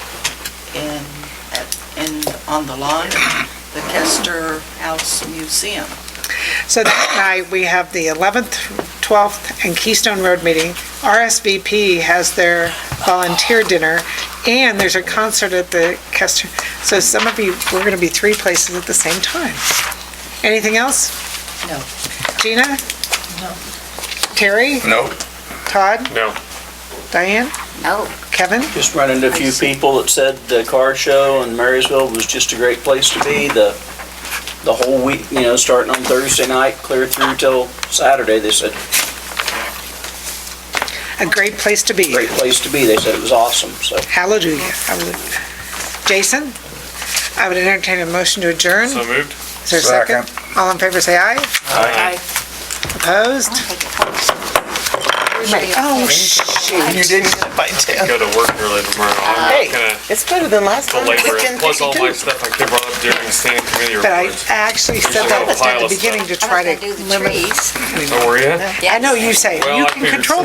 in, at- in, on the lawn, the Kester House Museum. So that night, we have the 11th, 12th, and Keystone Road meeting. RSVP has their volunteer dinner, and there's a concert at the Kester. So some of you, we're going to be three places at the same time. Anything else? No. Gina? No. Terry? Nope. Todd? No. Diane? No. Kevin? Just run into a few people that said the car show in Marysville was just a great place to be. The, the whole week, you know, starting on Thursday night, clear through till Saturday, they said, A great place to be. great place to be. They said it was awesome, so. Hallelujah. Hallelujah. Jason? I would entertain a motion to adjourn. So moved? Is there a second? All in favor, say aye. Aye. Opposed? Oh, shoot. You didn't get it by 10. Go to work early tomorrow. I'm not gonna It's better than last time. belabor it. Plus all my 10:52. stuff I could brought up during the standing committee But I reports. actually said Usually that a pile at of the beginning to I was try gonna to do the limit. trees. So were you? I know you say, Well, you I can figured control